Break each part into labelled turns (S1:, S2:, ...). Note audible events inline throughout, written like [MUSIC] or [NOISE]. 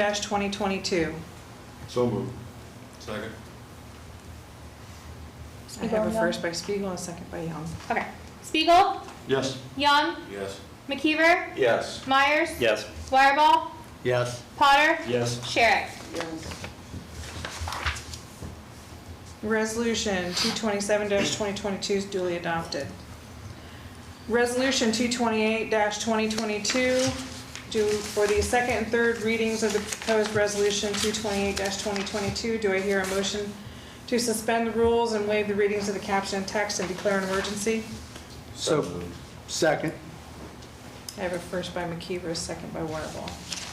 S1: 227-2022.
S2: So moved. Second.
S1: I have a
S3: Spiegel,
S1: first by Spiegel and a second by Young.
S3: Okay. Spiegel,
S2: Yes.
S3: Young,
S2: Yes.
S3: McKeever,
S2: Yes.
S3: Myers,
S4: Yes.
S3: Wireball,
S4: Yes.
S3: Potter,
S4: Yes.
S3: Sherrick.
S1: Resolution 227-2022 is duly adopted. Resolution 228-2022, do, for the second and third readings of the proposed resolution 228-2022, do I hear a motion to suspend the rules and waive the readings of the caption and text and declare an emergency?
S4: So-
S2: moved.
S4: Second.
S1: I have a first by McKeever, a second by Wireball.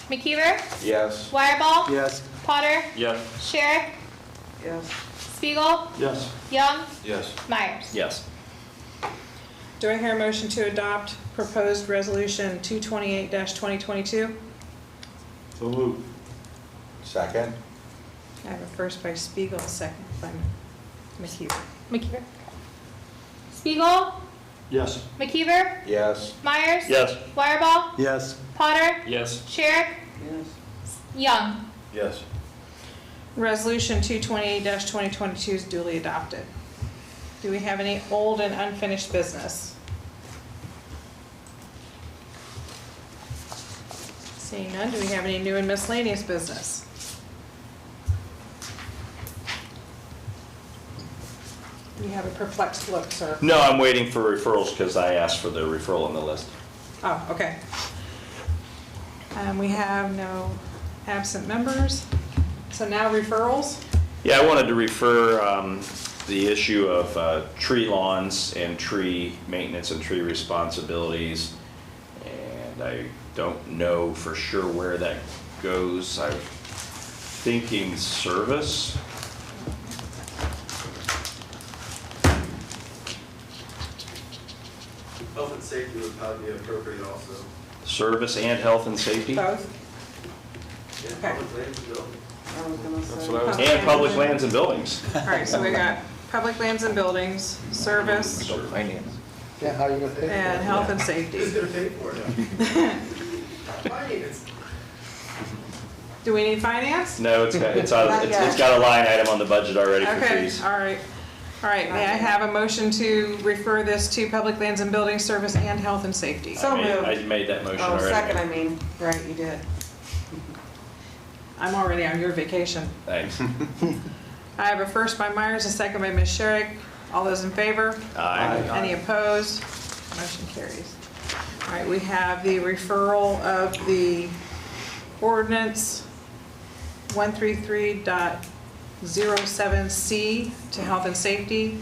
S3: McKeever,
S2: Yes.
S3: Wireball,
S4: Yes.
S3: Potter,
S4: Yes.
S3: Sherrick,
S1: Yes.
S3: Spiegel,
S2: Yes.
S3: Young,
S2: Yes.
S3: Myers.
S4: Yes.
S1: Do I hear a motion to adopt proposed resolution 228-2022?
S2: So moved. Second.
S1: I have a first by Spiegel, a second by McHugh.
S3: McKeever. Spiegel,
S2: Yes.
S3: McKeever,
S2: Yes.
S3: Myers,
S4: Yes.
S3: Wireball,
S4: Yes.
S3: Potter,
S4: Yes.
S3: Sherrick, Young.
S2: Yes.
S1: Resolution 228-2022 is duly adopted. Do we have any old and unfinished business? Seeing none, do we have any new and miscellaneous business? You have a perplexed look, sir.
S4: No, I'm waiting for referrals because I asked for the referral on the list.
S1: Oh, okay. Um, we have no absent members. So now referrals.
S4: Yeah, I wanted to refer um, the issue of uh, tree lawns and tree maintenance and tree responsibilities. And I don't know for sure where that goes. I'm thinking service.
S5: Health and safety would probably be appropriate also.
S4: Service and health and safety?
S1: Both.
S5: Yeah,
S1: Okay.
S5: public lands and buildings.
S6: I was gonna
S2: That's
S6: say.
S2: what I was,
S4: And public lands and buildings.
S1: All right, so we got public lands and buildings, service,
S6: Yeah, how you gonna pay for
S1: and
S6: that?
S1: health and
S5: Who's
S1: safety.
S5: gonna pay for it?
S1: [LAUGHS]
S5: Finance.
S1: Do we need finance?
S4: No, it's got, it's out, it's it's got a line item on the budget already for
S1: Okay,
S4: trees.
S1: all right. All right, may I have a motion to refer this to public lands and buildings, service, and health and safety?
S4: I
S6: So
S4: made-
S6: moved.
S4: I made that motion
S6: Oh,
S4: already.
S6: second, I mean, right, you did.
S1: I'm already on your vacation.
S4: Thanks.
S1: I have a first by Myers, a second by Ms. Sherrick. All those in favor?
S4: Aye.
S1: Any opposed? Motion carries. All right, we have the referral of the ordinance 133.07C to health and safety.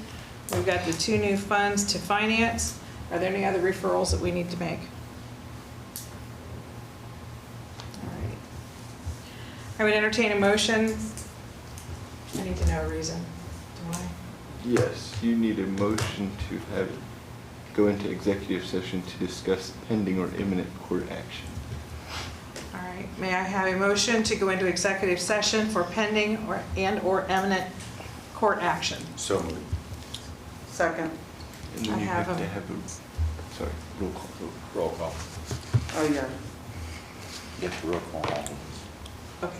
S1: We've got the two new funds to finance. Are there any other referrals that we need to make? All right. I would entertain a motion. I need to know a reason. Do I?
S7: Yes, you need a motion to have, go into executive session to discuss pending or imminent court action.
S1: All right, may I have a motion to go into executive session for pending or, and/or imminent court action?
S2: so moved.
S6: Second.
S7: And
S1: I
S7: then you
S1: have
S7: have to
S1: a-
S7: have a, sorry, roll call vote.
S4: Roll call.
S6: Oh, yeah.
S4: Get the roll call.
S1: Okay.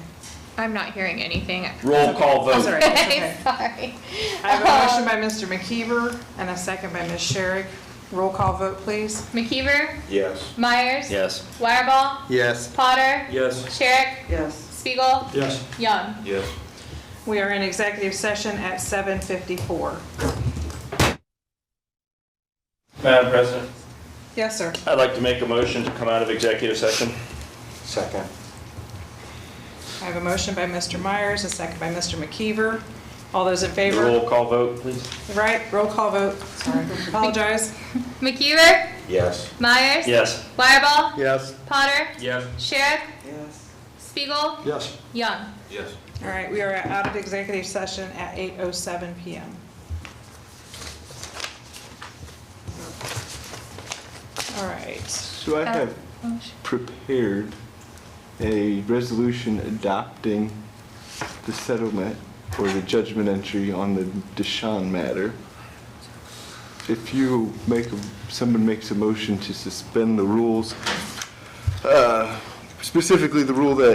S3: I'm not hearing anything.
S4: Roll call
S2: Oh.
S1: That's all
S4: vote.
S1: right, that's okay.
S3: [LAUGHS] Sorry. Um,
S1: I [LAUGHS] have a motion by Mr. McKeever and a second by Ms. Sherrick. Roll call vote, please.
S3: McKeever,
S2: Yes.
S3: Myers.
S4: Yes.
S3: Wireball,
S7: Yes.
S3: Potter,
S2: Yes.
S3: Sherrick,
S6: Yes.
S3: Spiegel,
S2: Yes.
S3: Young.
S2: Yes.
S1: We are in executive session at 7:54.
S4: Madam President,
S1: Yes, sir.
S4: I'd like to make a motion to come out of executive session.
S2: Second.
S1: I have a motion by Mr. Myers, a second by Mr. McKeever. All those in
S4: The
S1: favor?
S4: roll call vote, please.
S1: Right, roll call vote. [LAUGHS] Sorry, apologize.
S3: McKeever,
S2: Yes.
S3: Myers.
S4: Yes.
S3: Wireball,
S4: Yes.
S3: Potter,
S4: Yes.
S3: Sherrick,
S6: Yes.
S3: Spiegel,
S2: Yes.
S3: Young.
S2: Yes.
S1: All right, we are out of executive session at 8:07 PM. All right,
S7: So I have prepared a resolution adopting the settlement or the judgment entry on the Deshaun matter. If you make, a- someone makes a motion to suspend the rules, uh, specifically the rule that